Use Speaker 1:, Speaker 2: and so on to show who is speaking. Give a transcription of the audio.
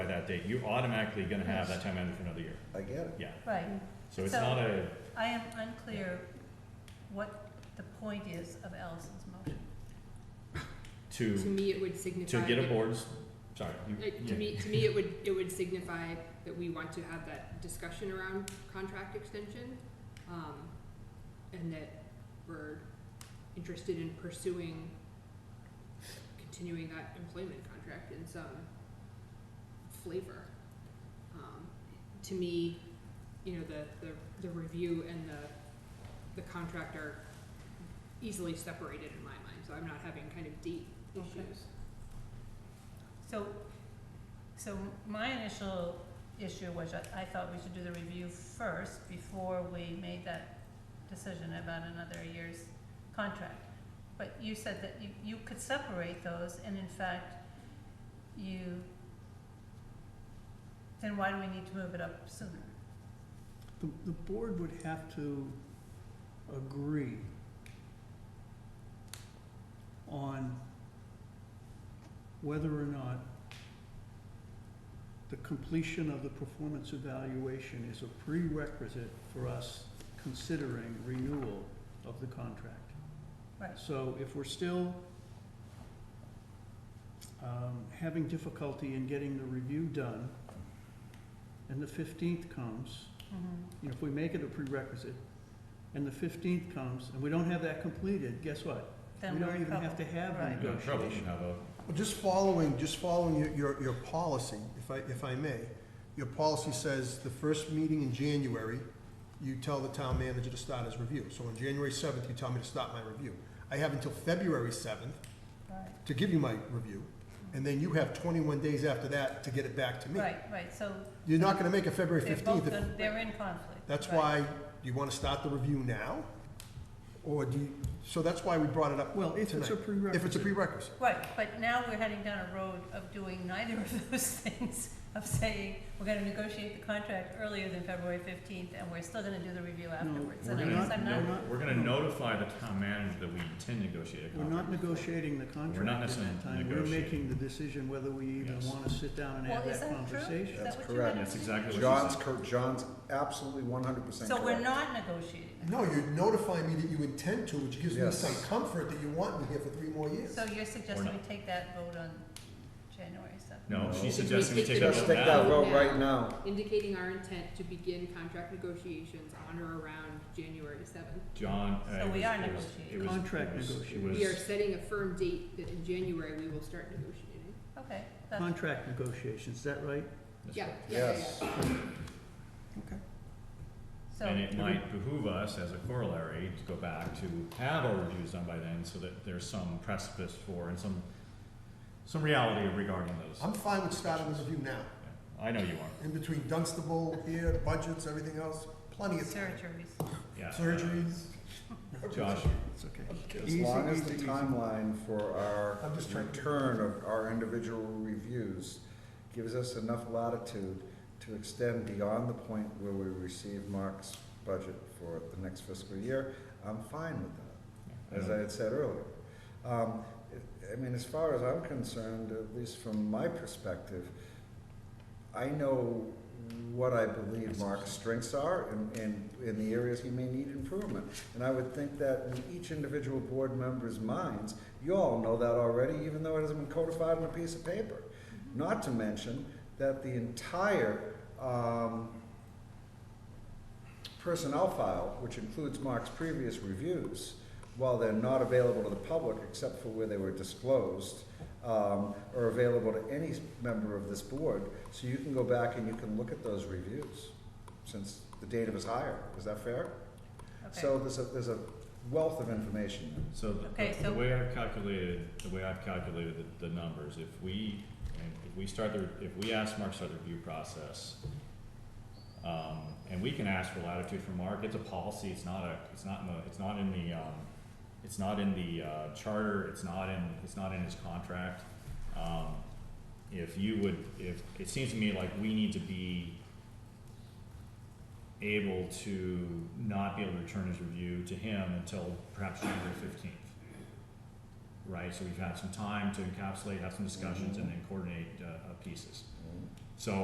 Speaker 1: that date, you're automatically gonna have that town manager for another year.
Speaker 2: I get it.
Speaker 1: Yeah,
Speaker 3: Right,
Speaker 1: so it's
Speaker 3: So-
Speaker 1: not a,
Speaker 3: I am unclear what the point is of Allison's motion.
Speaker 4: To
Speaker 1: to,
Speaker 4: me, it would signify.
Speaker 1: to get a
Speaker 4: that-
Speaker 1: board's, sorry. you-
Speaker 4: Like,
Speaker 1: yeah.
Speaker 4: to me, to me, it would, it would signify that we want to have that discussion around contract extension, um, and that we're interested in pursuing continuing that employment contract in some flavor. Um, to me, you know, the, the, the review and the, the contract are easily separated in my mind, so I'm not having kind of deep
Speaker 3: Okay.
Speaker 4: issues.
Speaker 3: So, so my initial issue was that I thought we should do the review first before we made that decision about another year's contract. But you said that you, you could separate those and in fact, you, then why do we need to move it up sooner?
Speaker 5: The, the board would have to agree on whether or not the completion of the performance evaluation is a prerequisite for us considering renewal of the contract.
Speaker 3: Right.
Speaker 5: So if we're still um, having difficulty in getting the review done, and the fifteenth comes, you know, if we make it a prerequisite, and the fifteenth comes, and we don't have that completed, guess what?
Speaker 3: Then
Speaker 5: We
Speaker 3: we're
Speaker 5: don't
Speaker 3: in
Speaker 5: even have to
Speaker 3: trouble.
Speaker 5: have
Speaker 3: Right.
Speaker 5: a
Speaker 1: You're in trouble, you
Speaker 5: negotiation.
Speaker 1: have a,
Speaker 2: Well, just following, just following your, your, your policy, if I, if I may. Your policy says the first meeting in January, you tell the town manager to start his review. So on January seventh, you tell me to start my review. I have until February seventh
Speaker 3: Right.
Speaker 2: to give you my review, and then you have twenty-one days after that to get it back to me.
Speaker 3: Right, right, so
Speaker 2: You're not gonna make it February
Speaker 3: they're both,
Speaker 2: fifteenth.
Speaker 3: gonna- they're in conflict.
Speaker 2: That's
Speaker 3: right.
Speaker 2: why, do you wanna start the review now? Or do you, so that's why we brought it up
Speaker 5: Well, if it's
Speaker 2: tonight.
Speaker 5: a prerequisite.
Speaker 2: If it's a prerequisite.
Speaker 3: Right, but now we're heading down a road of doing neither of those things, of saying, we're gonna negotiate the contract earlier than February fifteenth, and we're still gonna do the review afterwards.
Speaker 1: we're
Speaker 3: And I
Speaker 1: gonna,
Speaker 3: guess I'm not,
Speaker 1: no, we're gonna notify the town manager that we intend to negotiate a
Speaker 5: We're
Speaker 1: contract.
Speaker 5: not negotiating the contract
Speaker 1: We're not
Speaker 5: at
Speaker 1: necessarily
Speaker 5: that time, we're
Speaker 1: negotiating.
Speaker 5: making the decision whether we even
Speaker 1: Yes.
Speaker 5: wanna sit down and
Speaker 3: well,
Speaker 5: have
Speaker 3: is
Speaker 5: that
Speaker 3: that true? Is
Speaker 5: conversation.
Speaker 3: that
Speaker 2: That's
Speaker 3: what you
Speaker 2: correct.
Speaker 3: meant?
Speaker 1: That's exactly what
Speaker 2: John's
Speaker 1: cor-
Speaker 2: John's absolutely one hundred percent
Speaker 3: So we're not negotiating.
Speaker 2: No, you're notifying me that you intend to, which gives me
Speaker 6: Yes.
Speaker 2: some comfort that you want me here for three more years.
Speaker 3: So you're suggesting
Speaker 1: not.
Speaker 3: we take that vote on January seventh?
Speaker 1: No,
Speaker 6: No.
Speaker 1: she's suggesting we
Speaker 4: Just
Speaker 1: take that
Speaker 6: Just
Speaker 1: vote
Speaker 6: take that
Speaker 1: now.
Speaker 6: road right now.
Speaker 4: indicating our intent to begin contract negotiations on or around January seventh.
Speaker 1: John, uh,
Speaker 3: So
Speaker 1: it
Speaker 3: we
Speaker 1: was-
Speaker 3: are
Speaker 1: it was-
Speaker 3: negotiating.
Speaker 1: it was-
Speaker 5: Contract
Speaker 1: it was-
Speaker 5: negotiation.
Speaker 1: It
Speaker 4: We are
Speaker 1: was,
Speaker 4: setting a firm date that in January we will start negotiating.
Speaker 3: Okay, that's,
Speaker 5: Contract negotiations, is that right?
Speaker 1: that's
Speaker 4: Yeah,
Speaker 1: right.
Speaker 4: yeah, yeah,
Speaker 6: Yes.
Speaker 4: yeah.
Speaker 3: so,
Speaker 1: And it might behoove us as a corollary to go back to have our reviews done by then so that there's some precipice for and some, some reality regarding those.
Speaker 2: I'm fine with starting this review now,
Speaker 1: Yeah, I know you are,
Speaker 2: in between Dunstable here, budgets, everything else, plenty of time.
Speaker 3: surgeries,
Speaker 1: yeah. uh,
Speaker 2: Surgeries.
Speaker 1: Josh,
Speaker 5: It's okay.
Speaker 6: As
Speaker 5: Easy,
Speaker 6: long as
Speaker 5: easy,
Speaker 6: the
Speaker 5: easy.
Speaker 6: timeline for our
Speaker 2: I'm just trying to-
Speaker 6: return of our individual reviews gives us enough latitude to extend beyond the point where we receive Mark's budget for the next fiscal year, I'm fine with that.
Speaker 1: yeah,
Speaker 6: as I had said earlier. Um, it- I mean, as far as I'm concerned, at least from my perspective, I know what I believe Mark's strengths are and, and in the areas he may need improvement. And I would think that in each individual board member's minds, you all know that already, even though it hasn't been codified on a piece of paper. Not to mention that the entire, um, personnel file, which includes Mark's previous reviews, while they're not available to the public except for where they were disclosed, um, are available to any member of this board, so you can go back and you can look at those reviews since the date of his hire. Is that fair?
Speaker 3: okay.
Speaker 6: So there's a, there's a wealth of information there.
Speaker 1: So the-
Speaker 3: Okay,
Speaker 1: the, the
Speaker 3: so-
Speaker 1: way I've calculated, the way I've calculated the, the numbers, if we, and if we start the, if we ask Mark to start the review process, um, and we can ask for latitude from Mark, it's a policy, it's not a, it's not in the, it's not in the, um, it's not in the, uh, charter, it's not in, it's not in his contract. Um, if you would, if, it seems to me like we need to be able to not be able to return his review to him until perhaps January fifteenth. Right, so we've had some time to encapsulate, have some discussions, and then coordinate, uh, uh, pieces.